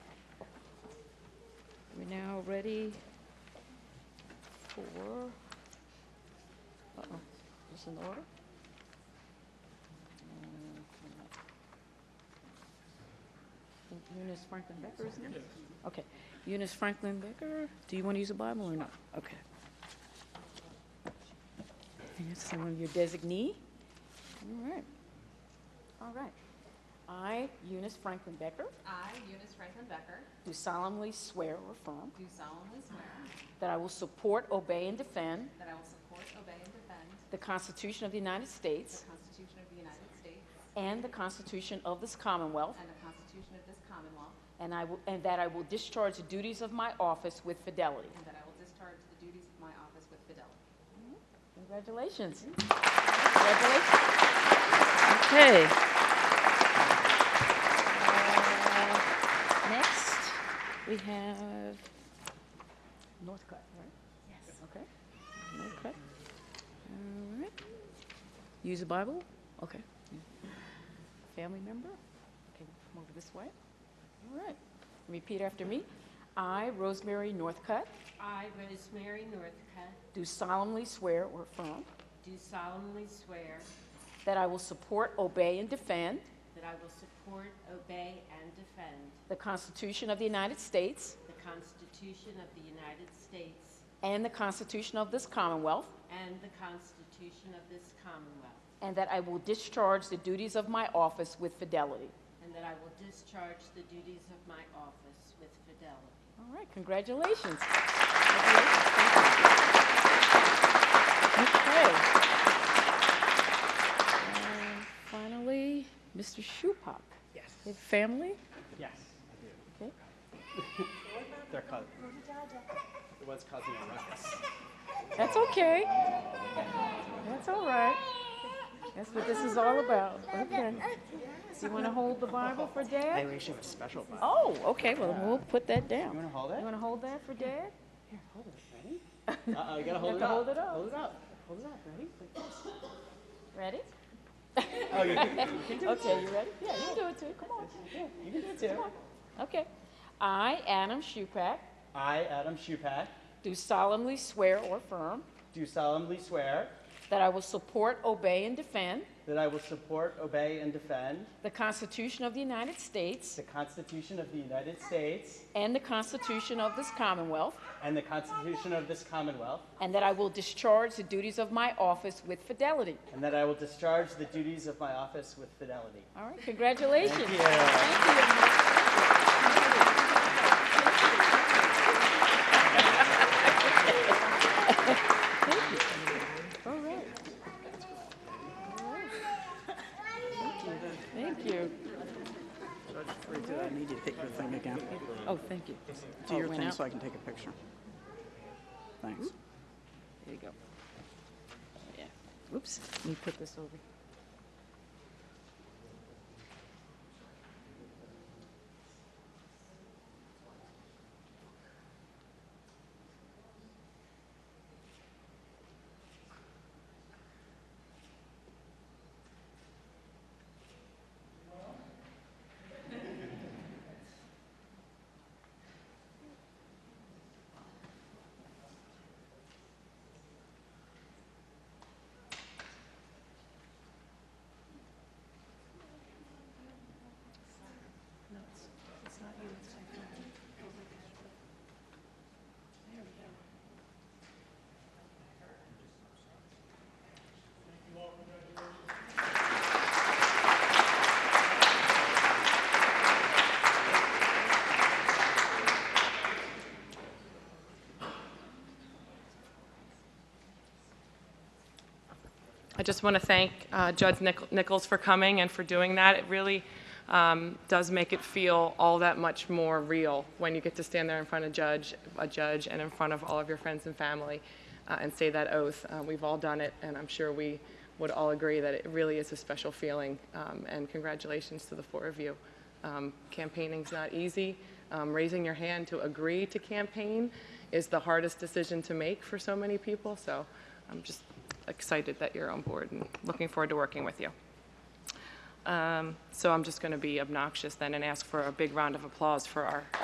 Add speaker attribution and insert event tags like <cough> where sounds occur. Speaker 1: already for, uh-oh, is this in order? Uh, Eunice Franklin Becker, isn't it? Okay, Eunice Franklin Becker, do you want to use a Bible or not? Okay. And that's someone your designee? All right. All right. I, Eunice Franklin Becker,
Speaker 2: I, Eunice Franklin Becker,
Speaker 1: do solemnly swear or affirm
Speaker 2: do solemnly swear
Speaker 1: that I will support, obey, and defend
Speaker 2: that I will support, obey, and defend
Speaker 1: the Constitution of the United
Speaker 2: the
Speaker 1: States
Speaker 2: Constitution of the United States
Speaker 1: and the Constitution of this Commonwealth,
Speaker 2: and the Constitution of this Commonwealth,
Speaker 1: and, I will, and that I will discharge the duties of my office with fidelity.
Speaker 2: and that I will discharge the duties of my office with fidelity.
Speaker 1: Congratulations. Congratulations. Okay. Uh, Next, we have Northcutt, right? Yes. Okay. Northcutt. All right. Use a Bible? Okay. Family member? Okay, come over this way. All right. Repeat after me. I, Rosemary Northcutt,
Speaker 3: I, Rosemary Northcutt,
Speaker 1: do solemnly swear or affirm
Speaker 3: do solemnly swear
Speaker 1: That I will support, obey, and defend
Speaker 3: that I will support, obey, and defend
Speaker 1: the Constitution of the United States
Speaker 3: the Constitution of the United States
Speaker 1: and the Constitution of this Commonwealth,
Speaker 3: and the Constitution of this Commonwealth,
Speaker 1: and that I will discharge the duties of my office with fidelity.
Speaker 3: and that I will discharge the duties of my office with fidelity.
Speaker 1: All right, congratulations. Congratulations. Thank you. Okay. And Finally, Mr. Schupak.
Speaker 4: Yes.
Speaker 1: Your family?
Speaker 4: Yes. I do.
Speaker 1: Okay.
Speaker 4: <laughs> They're cous- It was causing a ruckus.
Speaker 1: That's okay. That's all right. That's what this is all about. Okay. So you want to hold the Bible for
Speaker 4: I
Speaker 1: Dad?
Speaker 4: wish it was special, but.
Speaker 1: Oh, okay, well, we'll put that down.
Speaker 4: You wanna hold it? <laughs>
Speaker 1: You want to hold that for Dad?
Speaker 4: Here, hold it. Ready? Uh-oh, you gotta hold
Speaker 1: have to
Speaker 4: it up.
Speaker 1: hold it up.
Speaker 4: Hold it up. Hold it up. Ready? Like this.
Speaker 1: Ready?
Speaker 4: Oh, you
Speaker 1: <laughs>
Speaker 4: can,
Speaker 1: Okay, you ready? Yeah, you can do it too, come on.
Speaker 4: you can do it too.
Speaker 1: Okay. I, Adam Shupak,
Speaker 4: I, Adam Shupak,
Speaker 1: do solemnly swear or affirm
Speaker 4: do solemnly swear
Speaker 1: that I will support, obey, and defend
Speaker 4: that I will support, obey, and defend
Speaker 1: the Constitution of the United States
Speaker 4: the Constitution of the United States
Speaker 1: and the Constitution of this Commonwealth,
Speaker 4: and the Constitution of this Commonwealth,
Speaker 1: And that I will discharge the duties of my office with fidelity.
Speaker 4: and that I will discharge the duties of my office with fidelity.
Speaker 1: All right, congratulations.
Speaker 4: Thank you.
Speaker 1: All right. All right. Thank you.
Speaker 5: I need you to take your thing again.
Speaker 1: Oh, thank you. Oh,
Speaker 5: Do
Speaker 1: it
Speaker 5: your
Speaker 1: went
Speaker 5: thing
Speaker 1: out.
Speaker 5: so I can take a picture. Thanks.
Speaker 1: There you go. Yeah. Oops, let me put this over.
Speaker 6: I just want to thank uh, Judge Nich- Nichols for coming and for doing that. It really um, does make it feel all that much more real when you get to stand there in front of judge, a judge, and in front of all of your friends and family uh, and say that oath. Uh, We've all done it, and I'm sure we would all agree that it really is a special feeling. Um, And congratulations to the four of you. Um, Campaigning's not easy. Um, Raising your hand to agree to campaign is the hardest decision to make for so many people, so I'm just excited that you're on board and looking forward to working with you. Um, So I'm just going to be obnoxious then and ask for a big round of applause for our